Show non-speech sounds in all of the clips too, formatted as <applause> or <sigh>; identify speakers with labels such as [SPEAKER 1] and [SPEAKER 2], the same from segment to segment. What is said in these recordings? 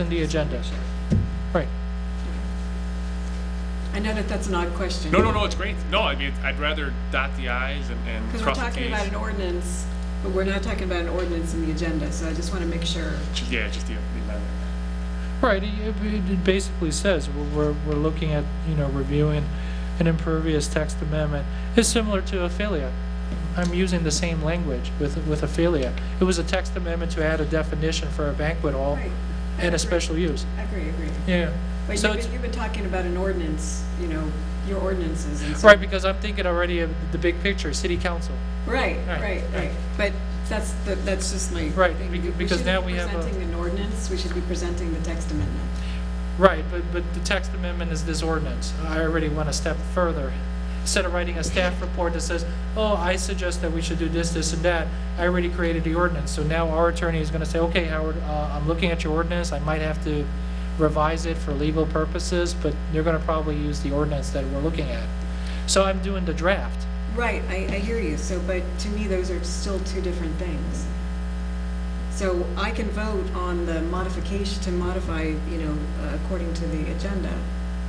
[SPEAKER 1] in the agenda. Right.
[SPEAKER 2] I know that that's an odd question.
[SPEAKER 3] No, no, no, it's great. No, I mean, I'd rather dot the i's and, and
[SPEAKER 2] Because we're
[SPEAKER 3] cross the
[SPEAKER 2] talking about
[SPEAKER 3] t's.
[SPEAKER 2] an ordinance, but we're not talking about an ordinance in the agenda, so I just want to make sure.
[SPEAKER 3] Yeah, just the, the amendment.
[SPEAKER 1] Right, it- it it basically says, we're- we're, we're looking at, you know, reviewing an impervious text amendment. It's similar to Ophelia. I'm using the same language with, with Ophelia. It was a text amendment to add a definition for a banquet hall
[SPEAKER 2] Right.
[SPEAKER 1] and a special use.
[SPEAKER 2] I agree, agree.
[SPEAKER 1] Yeah.
[SPEAKER 2] But
[SPEAKER 1] So
[SPEAKER 2] you've
[SPEAKER 1] it's-
[SPEAKER 2] been, you've been talking about an ordinance, you know, your ordinances and so.
[SPEAKER 1] Right, because I'm thinking already of the big picture, city council.
[SPEAKER 2] Right,
[SPEAKER 1] Right,
[SPEAKER 2] right, right. But that's, the- that's just my.
[SPEAKER 1] Right,
[SPEAKER 2] thing.
[SPEAKER 1] becau- because now we have a-
[SPEAKER 2] shouldn't be presenting an ordinance, we should be presenting the text amendment.
[SPEAKER 1] Right, but, but the text amendment is this ordinance. I already went a step further. Instead of writing a staff report that says, oh, I suggest that we should do this, this, and that, I already created the ordinance. So now our attorney is going to say, okay, Howard, uh, I'm looking at your ordinance, I might have to revise it for legal purposes, but they're going to probably use the ordinance that we're looking at. So I'm doing the draft.
[SPEAKER 2] Right, I, I hear you, so, but to me, those are still two different things. So I can vote on the modification, to modify, you know, uh, according to the agenda,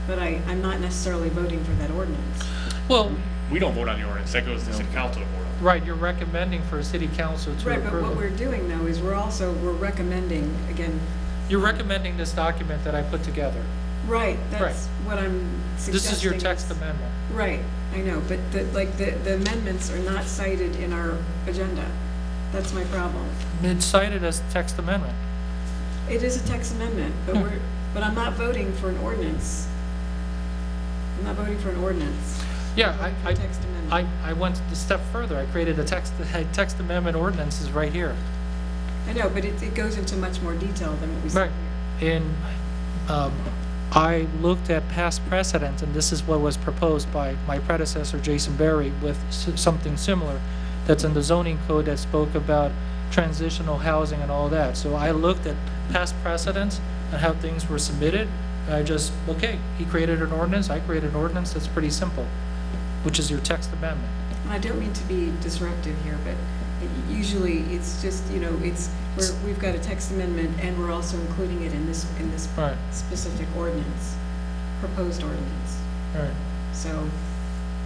[SPEAKER 2] but I, I'm not necessarily voting for that ordinance.
[SPEAKER 1] Well,
[SPEAKER 3] We don't vote on the ordinance. That goes to the city council to vote on.
[SPEAKER 1] right, you're recommending for a city council to
[SPEAKER 2] Right, but what
[SPEAKER 1] approve it.
[SPEAKER 2] we're doing though is we're also, we're recommending, again,
[SPEAKER 1] You're recommending this document that I put together.
[SPEAKER 2] right, that's what I'm suggesting.
[SPEAKER 1] This is your text amendment.
[SPEAKER 2] Right, I know, but the, like, the the amendments are not cited in our agenda. That's my problem.
[SPEAKER 1] It's cited as text amendment.
[SPEAKER 2] It is a text amendment, but
[SPEAKER 1] Hmm.
[SPEAKER 2] we're, but I'm not voting for an ordinance. I'm not voting for an ordinance.
[SPEAKER 1] Yeah,
[SPEAKER 2] For
[SPEAKER 1] I,
[SPEAKER 2] a text
[SPEAKER 1] I,
[SPEAKER 2] amendment.
[SPEAKER 1] I, I went a step further. I created a text, <laughs> a text amendment ordinance is right here.
[SPEAKER 2] I know, but it, it goes into much more detail than what we said
[SPEAKER 1] Right. And, um, I looked at past precedent, and this is what was proposed by my predecessor, Jason Berry, with s- something similar that's in the zoning code that spoke about transitional housing and all that. So I looked at past precedents and how things were submitted. I just, okay, he created an ordinance, I created an ordinance, that's pretty simple, which is your text amendment.
[SPEAKER 2] here. And I don't mean to be disruptive here, but it- usually it's just, you know, it's, we're, we've got a text amendment and we're also including it in this, in this
[SPEAKER 1] Right,
[SPEAKER 2] specific ordinance, proposed ordinance.
[SPEAKER 1] right.
[SPEAKER 2] So,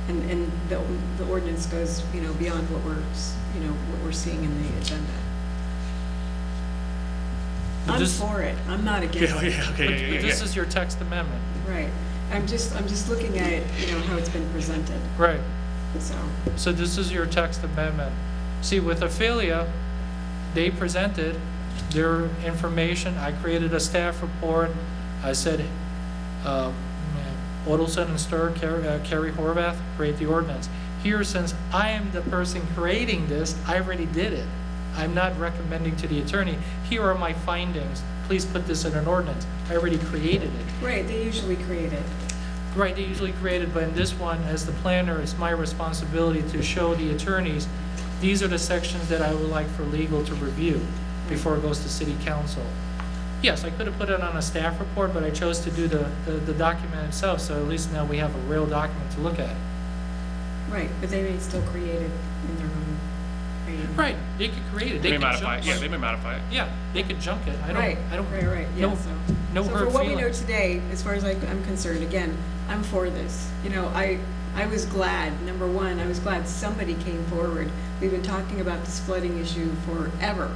[SPEAKER 2] and, and the, the ordinance goes, you know, beyond what we're, s- you know, what we're seeing in the agenda.
[SPEAKER 1] But
[SPEAKER 2] I'm
[SPEAKER 1] this-
[SPEAKER 2] for it, I'm not against
[SPEAKER 3] Yeah,
[SPEAKER 2] it,
[SPEAKER 3] yeah,
[SPEAKER 1] But
[SPEAKER 3] okay, yeah, yeah,
[SPEAKER 1] but
[SPEAKER 3] yeah.
[SPEAKER 1] this is your text amendment.
[SPEAKER 2] right. I'm just, I'm just looking at, it, you know, how it's been presented,
[SPEAKER 1] Right.
[SPEAKER 2] so,
[SPEAKER 1] So this is your text amendment. See, with Ophelia, they presented their information. I created a staff report. I said, uh, Odelson and Stur, Ker- uh, Kerry Horvath, create the ordinance. Here, since I am the person creating this, I already did it. I'm not recommending to the attorney, here are my findings. Please put this in an ordinance. I already created it.
[SPEAKER 2] right, they usually create it.
[SPEAKER 1] Right, they usually created, but in this one, as the planner, it's my responsibility to show the attorneys, these are the sections that I would like for legal to review before it goes to city council. Yes, I could have put it on a staff report, but I chose to do the, the- the document itself, so at least now we have a real document to look at.
[SPEAKER 2] Right, but they may still create it in their own, creative-
[SPEAKER 1] Right, they could create it,
[SPEAKER 3] They
[SPEAKER 1] they
[SPEAKER 3] may
[SPEAKER 1] could
[SPEAKER 3] modify,
[SPEAKER 1] junk
[SPEAKER 3] it. yeah, they
[SPEAKER 1] it.
[SPEAKER 3] may modify it.
[SPEAKER 1] Yeah, they could junk it, I
[SPEAKER 2] Right,
[SPEAKER 1] don't, I
[SPEAKER 2] right,
[SPEAKER 1] don't,
[SPEAKER 2] right, yeah,
[SPEAKER 1] no-
[SPEAKER 2] so.
[SPEAKER 1] no
[SPEAKER 2] So for
[SPEAKER 1] hurt
[SPEAKER 2] what we know
[SPEAKER 1] feelings.
[SPEAKER 2] today, as far as I- I'm concerned, again, I'm for this. You know, I, I was glad, number one, I was glad somebody came forward. We've been talking about this flooding issue forever.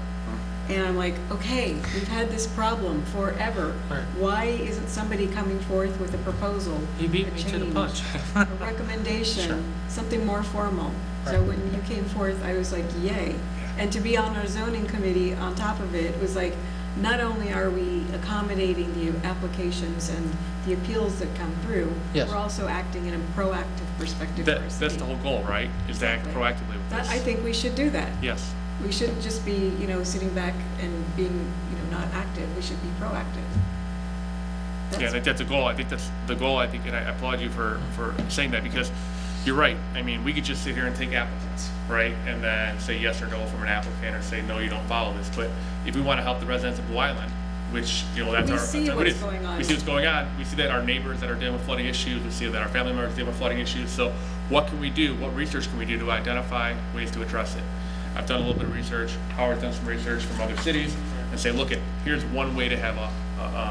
[SPEAKER 2] And I'm like, okay, we've had this problem forever.
[SPEAKER 1] Right.
[SPEAKER 2] Why isn't somebody coming forth with a proposal?
[SPEAKER 1] He beat
[SPEAKER 2] a
[SPEAKER 1] me to the
[SPEAKER 2] change,
[SPEAKER 1] punch. <laughs>
[SPEAKER 2] A recommendation, something more formal. So
[SPEAKER 1] Right.
[SPEAKER 2] when you came forth, I was like, yay. And to be on our zoning committee on top of it was like, not only are we accommodating the applications and the appeals that come through,
[SPEAKER 1] Yes.
[SPEAKER 2] we're also acting in a proactive perspective for
[SPEAKER 3] That,
[SPEAKER 2] our
[SPEAKER 3] that's
[SPEAKER 2] city.
[SPEAKER 3] the whole goal, right? Is to act
[SPEAKER 2] Exactly.
[SPEAKER 3] proactively with
[SPEAKER 2] That,
[SPEAKER 3] this.
[SPEAKER 2] I think we should do that.
[SPEAKER 3] Yes.
[SPEAKER 2] We shouldn't just be, you know, sitting back and being, you know, not active. We should be proactive.
[SPEAKER 3] Yeah, I
[SPEAKER 2] That's,
[SPEAKER 3] think that's a goal. I think that's the goal, I think, and I applaud you for, for saying that because you're right. I mean, we could just sit here and take applicants, right? And then say yes or no from an applicant or say, no, you don't follow this. But if we want to help the residents of Blue Island, which, you know, that's
[SPEAKER 2] We
[SPEAKER 3] our.
[SPEAKER 2] see
[SPEAKER 3] that's our-
[SPEAKER 2] what's
[SPEAKER 3] it is.
[SPEAKER 2] going on.
[SPEAKER 3] We see what's going on. We see that our neighbors that are dealing with flooding issues, we see that our family members dealing with flooding issues. So what can we do? What research can we do to identify ways to address it? I've done a little bit of research. Howard's done some research from other cities and say, look, at here's one way to have a uh,